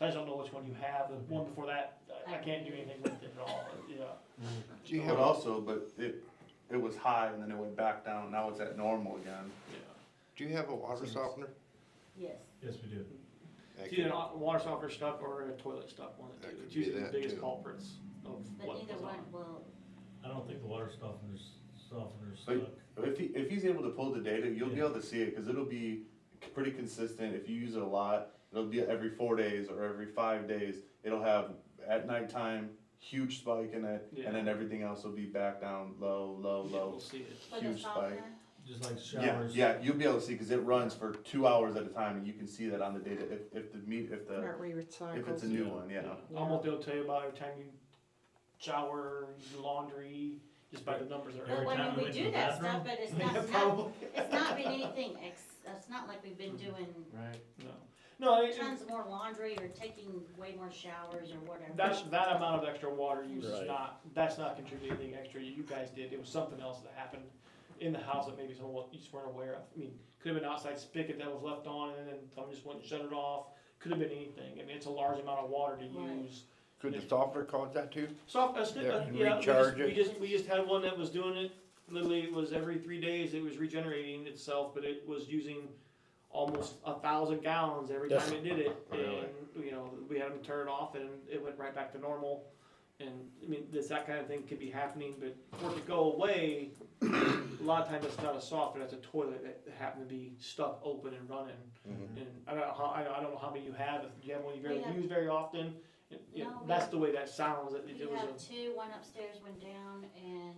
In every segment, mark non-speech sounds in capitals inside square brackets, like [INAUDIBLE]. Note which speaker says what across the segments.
Speaker 1: I just don't know which one you have, the one before that, I, I can't do anything with it at all, yeah.
Speaker 2: Do you
Speaker 3: But
Speaker 2: have,
Speaker 3: also, but it, it was high and then it went back down, now it's at normal again.
Speaker 2: do you have a water softener?
Speaker 4: Yes.
Speaker 5: Yes, we do.
Speaker 2: That
Speaker 1: It's either
Speaker 2: could-
Speaker 1: an au- water softener stuff or a toilet stuff one, of the
Speaker 2: That
Speaker 1: two.
Speaker 2: could
Speaker 1: it's
Speaker 2: be
Speaker 1: usually the
Speaker 2: that
Speaker 1: biggest
Speaker 2: too.
Speaker 1: culprits of
Speaker 4: But
Speaker 1: what
Speaker 4: either
Speaker 1: goes on.
Speaker 4: one will,
Speaker 5: I don't think the water softeners, softeners
Speaker 3: But
Speaker 5: suck.
Speaker 3: if he, if he's able to pull the data, you'll be
Speaker 5: Yeah.
Speaker 3: able to see it, cause it'll be c- pretty consistent, if you use it a lot, it'll be every four days or every five days, it'll have at nighttime, huge spike in it,
Speaker 1: Yeah.
Speaker 3: and then everything else will be back down, low, low,
Speaker 1: Yeah, we'll
Speaker 3: low.
Speaker 1: see it.
Speaker 4: for the
Speaker 3: Huge spike.
Speaker 4: softener,
Speaker 5: Just like
Speaker 3: Yeah,
Speaker 5: showers.
Speaker 3: yeah, you'll be able to see, cause it runs for two hours at a time, and you can see that on the data, if, if the meat, if the,
Speaker 6: Aren't we recycled?
Speaker 3: if it's a new one, yeah.
Speaker 1: I won't be able to tell you about every time you shower, you do laundry, just by the numbers that are.
Speaker 4: but
Speaker 5: Every time
Speaker 4: when
Speaker 5: we
Speaker 4: we
Speaker 5: went to
Speaker 4: do
Speaker 5: the
Speaker 4: that stuff,
Speaker 5: bathroom?
Speaker 4: but it's
Speaker 1: [LAUGHS]
Speaker 4: not, it's not, it's not been anything ex, it's not like we've been doing
Speaker 7: Right.
Speaker 1: No, no, it- it-
Speaker 4: tons more laundry or taking way more showers or whatever.
Speaker 1: That's, that amount of extra water use is
Speaker 5: Right.
Speaker 1: not, that's not contributing anything extra you guys did, it was something else that happened in the house that maybe someone, you just weren't aware of. I mean, could have been outside spigot that was left on and then someone just went and shut it off, could have been anything, I mean, it's a large amount of water to
Speaker 4: Right.
Speaker 1: use.
Speaker 2: Could the softener cause that too?
Speaker 1: So, uh, sti- uh,
Speaker 2: Yeah,
Speaker 1: yeah, we just,
Speaker 2: recharge
Speaker 1: we
Speaker 2: it.
Speaker 1: just, we just had one that was doing it, literally it was every three days, it was regenerating itself, but it was using almost a thousand gallons every
Speaker 2: Yes.
Speaker 1: time it did it,
Speaker 2: Really?
Speaker 1: and, you know, we had them turn it off and it went right back to normal. And, I mean, this, that kind of thing could be happening, but for it to go away, a lot of times it's not a softener, it's a toilet that happened to be stuck open and running.
Speaker 8: Mm-hmm.
Speaker 3: Mhm.
Speaker 1: And I don't know how, I don't- I don't know how many you have, if you have one you
Speaker 4: We
Speaker 1: barely
Speaker 4: have-
Speaker 1: use very often, it- you know,
Speaker 4: No, we-
Speaker 1: that's the way that sounds, it
Speaker 4: We
Speaker 1: it was a.
Speaker 4: have two, one upstairs, one down, and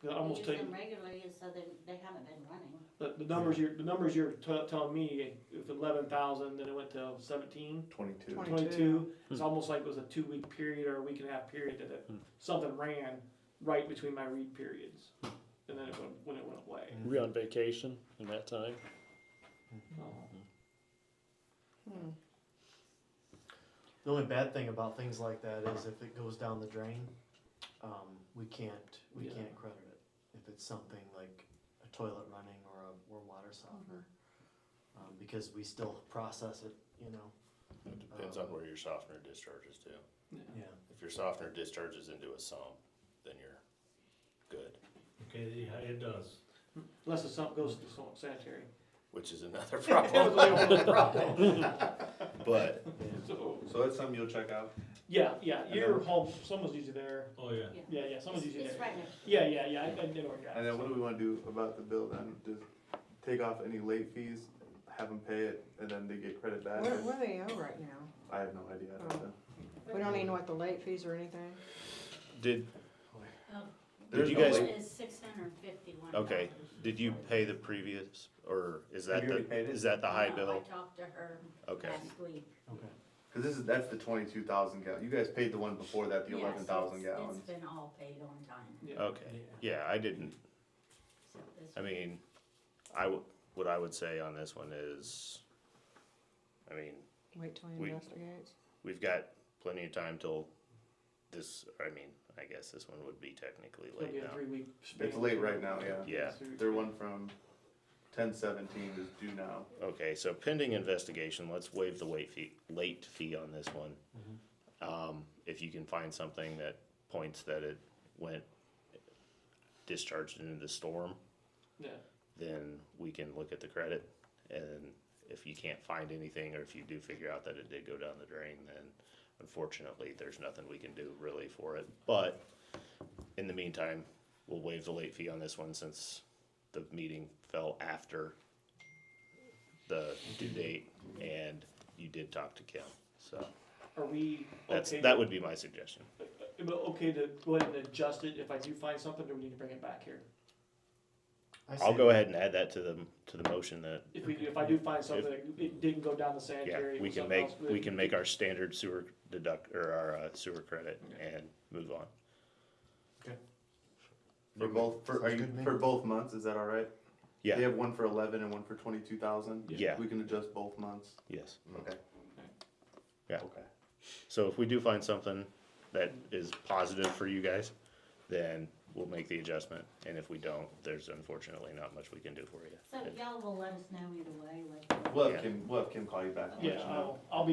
Speaker 1: Cause I
Speaker 4: we
Speaker 1: almost
Speaker 4: use
Speaker 1: take
Speaker 4: them regularly, so they, they haven't been running.
Speaker 1: the, the numbers you're, the numbers you're t- telling me, if eleven thousand, then it went to seventeen,
Speaker 3: Twenty-two.
Speaker 6: Twenty-
Speaker 1: twenty-two. It's almost like it was a two-week period or a week and a half period that it, something ran right between my read periods. And then it went, when it went away.
Speaker 9: We're on vacation in that time.
Speaker 1: Uh-huh.
Speaker 7: The only bad thing about things like that is if it goes down the drain, um, we can't, we
Speaker 1: Yeah.
Speaker 7: can't credit it. If it's something like a toilet running or a, or water softener. Um, because we still process it, you know,
Speaker 10: It depends on where your softener discharges to.
Speaker 7: yeah.
Speaker 10: If your softener discharges into a sump, then you're good,
Speaker 5: Okay, yeah, it does.
Speaker 1: Unless the sump goes to some sanitary.
Speaker 7: [LAUGHS]
Speaker 10: which is
Speaker 8: [LAUGHS]
Speaker 10: another
Speaker 1: That was
Speaker 10: problem.
Speaker 1: the only problem.
Speaker 10: But
Speaker 1: So,
Speaker 3: So that's something you'll check out?
Speaker 1: Yeah, yeah,
Speaker 3: And
Speaker 1: your
Speaker 3: then-
Speaker 1: home, someone's usually there.
Speaker 5: Oh, yeah.
Speaker 1: Yeah, yeah, someone's
Speaker 4: It's-
Speaker 1: usually
Speaker 4: It's
Speaker 1: there.
Speaker 4: right next.
Speaker 1: Yeah, yeah, yeah, I, I know where you're at.
Speaker 3: And then what
Speaker 1: so.
Speaker 3: do we wanna do about the bill then? Just take off any late fees, have them pay it, and then they get credit back?
Speaker 6: What, what do they owe right now?
Speaker 3: I have no idea. I don't know.
Speaker 6: We don't even know what the late fees or anything.
Speaker 8: Did,
Speaker 3: There's
Speaker 8: you
Speaker 3: no
Speaker 8: guys-
Speaker 3: late-
Speaker 4: It's six hundred and fifty-one.
Speaker 8: okay, did you pay the previous, or is
Speaker 3: Have
Speaker 8: that
Speaker 3: you
Speaker 8: the,
Speaker 3: already paid it?
Speaker 8: is that the high
Speaker 4: I
Speaker 8: bill?
Speaker 4: talked to her
Speaker 8: Okay.
Speaker 4: last week.
Speaker 7: Okay.
Speaker 3: Cause this is, that's the twenty-two thousand gallon. You guys paid the one before that, the
Speaker 4: Yeah, so
Speaker 3: eleven thousand
Speaker 4: it's-
Speaker 3: gallons.
Speaker 4: It's been all paid on time,
Speaker 1: Yeah.
Speaker 8: Okay, yeah, I didn't,
Speaker 4: so this.
Speaker 8: I mean, I, w- what I would say on this one is, I mean,
Speaker 6: Wait till he
Speaker 8: We-
Speaker 6: investigates.
Speaker 8: we've got plenty of time till this, I mean, I guess this one would be technically
Speaker 1: It's gonna be
Speaker 8: late
Speaker 1: a
Speaker 8: now.
Speaker 1: three-week span.
Speaker 3: It's late right now, yeah.
Speaker 8: Yeah,
Speaker 3: Their one from ten seventeen is due now.
Speaker 8: Okay, so pending investigation, let's waive the wait fee, late fee on this one.
Speaker 1: Mm-hmm.
Speaker 8: Um, if you can find something that points that it went discharged into the storm,
Speaker 1: Yeah.
Speaker 8: then we can look at the credit. And if you can't find anything, or if you do figure out that it did go down the drain, then unfortunately, there's nothing we can do really for it. But in the meantime, we'll waive the late fee on this one since the meeting fell after the due date and you did talk to Kim. So
Speaker 1: Are we
Speaker 8: that's,
Speaker 1: okay?
Speaker 8: that would be my suggestion.
Speaker 1: Am I okay to go ahead and adjust it if I do find something, or we need to bring it back here?
Speaker 7: I
Speaker 8: I'll
Speaker 7: see.
Speaker 8: go aad and add that to the, to the motion that,
Speaker 1: If we, if I do find something, it didn't go down the
Speaker 8: yeah,
Speaker 1: sanitary. it
Speaker 8: we
Speaker 1: was
Speaker 8: can
Speaker 1: something
Speaker 8: make,
Speaker 1: else,
Speaker 8: we can make our standard sewer deduct, or our uh, sewer credit and move on.
Speaker 3: For both, for, are you, for both months, is that alright?
Speaker 8: Yeah.
Speaker 3: They have one for eleven and one for twenty-two thousand?
Speaker 8: Yeah. Mm.
Speaker 3: We can adjust both months,
Speaker 8: Yes.
Speaker 3: okay?
Speaker 8: Yeah.
Speaker 3: Okay.
Speaker 8: So if we do find something that is positive for you guys, then we'll make the adjustment. And if we don't, there's unfortunately not much we can do for you.
Speaker 4: So y'all will let us know either way, like.
Speaker 3: We'll
Speaker 8: Yeah.
Speaker 3: have Kim, we'll have Kim call you back. and let
Speaker 1: Yeah,
Speaker 3: you know.
Speaker 1: I'll, I'll be